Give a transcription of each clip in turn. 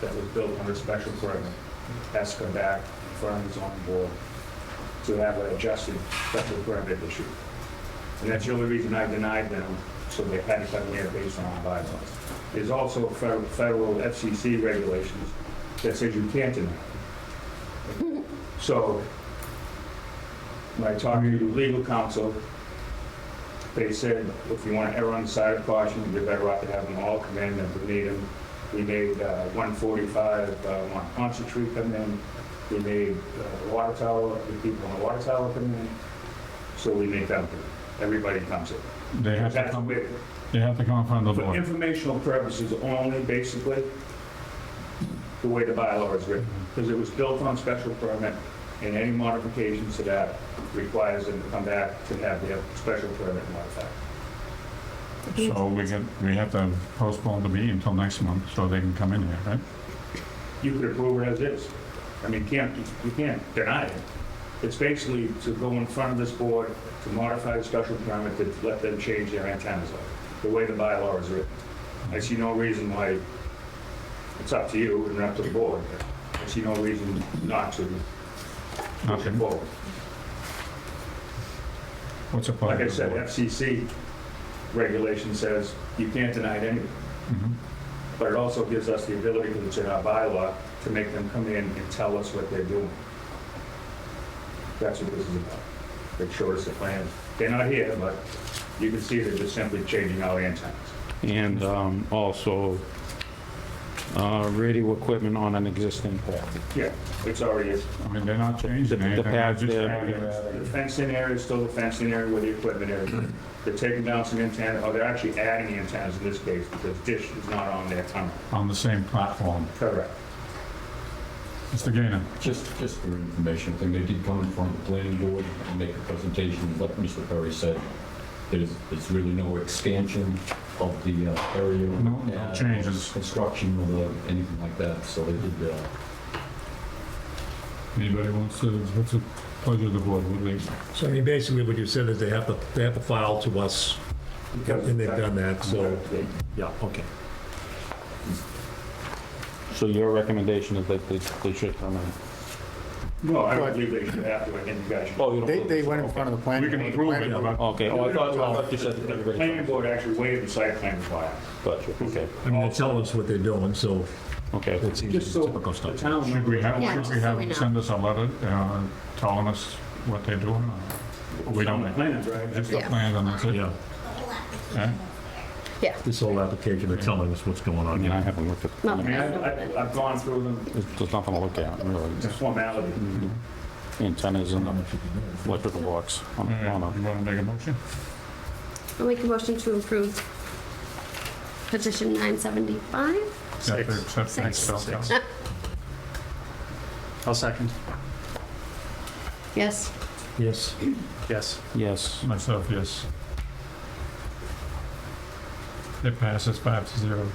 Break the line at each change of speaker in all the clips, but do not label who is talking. that was built under special permit has to come back in front of the zoning board to have an adjusted special permit issue. And that's the only reason I denied them, so they had to come here based on our bylaws. There's also federal federal FCC regulations that says you can't deny. So when I talked to legal counsel, they said, if you want to err on the side of caution, you're better off to have them all come in than to need them. We made uh, 145, uh, Mont Ponce Tree come in, we made uh, the water tower, the people on the water tower come in, so we make them, do. everybody comes in.
They have to
That's
come,
where-
they have to come in front of the
For
board.
informational purposes only, basically, the way the bylaw is written,
Mm-hmm.
because it was built on special permit, and any modifications to that requires them to come back to have their special permit modified.
So we get, we have to postpone the meeting until next month so they can come in here, right?
You could approve it as is. I mean, you can't, you can't deny it. It's basically to go in front of this board to modify the special permit to let them change their antennas up, the way the bylaw is written. I see no reason why, it's up to you and up to the board, but I see no reason not to push it
Nothing.
forward.
What's the
Like I
pleasure of the
said,
board?
FCC regulation says you can't deny it anyway.
Mhm.
But it also gives us the ability, which in our bylaw, to make them come in and tell us what they're doing. That's what this is about. They showed us the plan. They're not here, but you can see they're just simply changing out antennas.
and um, also uh, radio equipment on an existing pad.
Yeah, it's already, is.
I mean, they're not changing
The- the
anything. they're
pads
just
there.
adding-
the fencing area is still the fencing area where the equipment is. They're taking down some antenna, or they're actually adding antennas in this case because dish is not on their tunnel.
On the same platform.
Correct.
Mr. Gainer,
Just, just for information, thing, they did come in front of the planning board and make a presentation, like Mr. Perry said, there's, there's really no expansion of the uh, area.
No, no
uh,
changes.
Construction or the- anything like that, so they did, uh,
anybody wants to, what's the pleasure of the board? What do they-
So I mean, basically what you said is they have to, they have to file to us, and they've done that, so, yeah, okay.
So your recommendation is that they, they should come in?
No, I don't believe they should have to, I think you guys should.
Oh, you don't
They,
believe-
they went in front of the planning.
We
board. The
can approve
planning
it,
board-
but
Okay, oh, I thought, I thought you said that
The planning
everybody.
board actually waived the site plan requirement.
Got you, okay,
I mean, they tell us what they're doing, so
okay.
it seems
Just so
typical
the
stuff.
town
Should we
members
have,
Yeah,
should
just
we
so
have,
we know.
them send us a letter uh, telling us what they're doing? or We
on
don't,
the plans, right?
just the
Yeah.
plan and that's it?
Yeah,
Eh?
Yeah.
this whole application, they're telling us what's going
I
on
mean, I
here.
haven't looked at,
No,
I mean, I- I- I've gone through them,
there's there's nothing to look at, really.
it's formality.
Antennas and electrical box on,
All
on
right,
a,
You want to make a motion?
I'll make a motion to approve petition 975.
You have to accept
Six.
next bill.
I'll second.
Yes,
Yes,
Yes.
yes,
Myself, yes. It passes five to zero.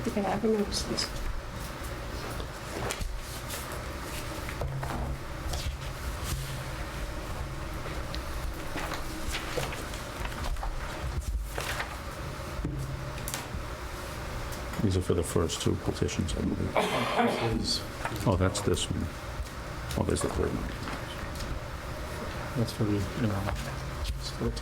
I think I have noticed this.
these are for the first two petitions, I believe. Oh, that's this one. Oh, there's the third one.
That's for the, you know.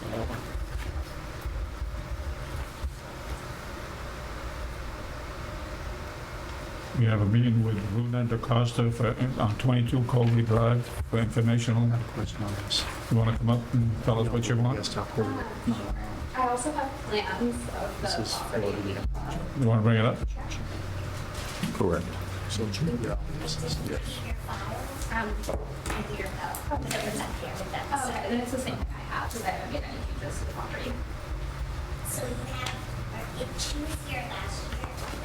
We have a meeting with Luna DaCosta for, uh, on 22 Colby Drive for informational. You want to come up and tell us what you want?
I also have plans of the property.
You want to bring it up?
Correct.
Um, I think you're about, that was up here with that. Oh, and it's the same that I have, because I haven't made any changes to the property.
So you have, or it was here last year,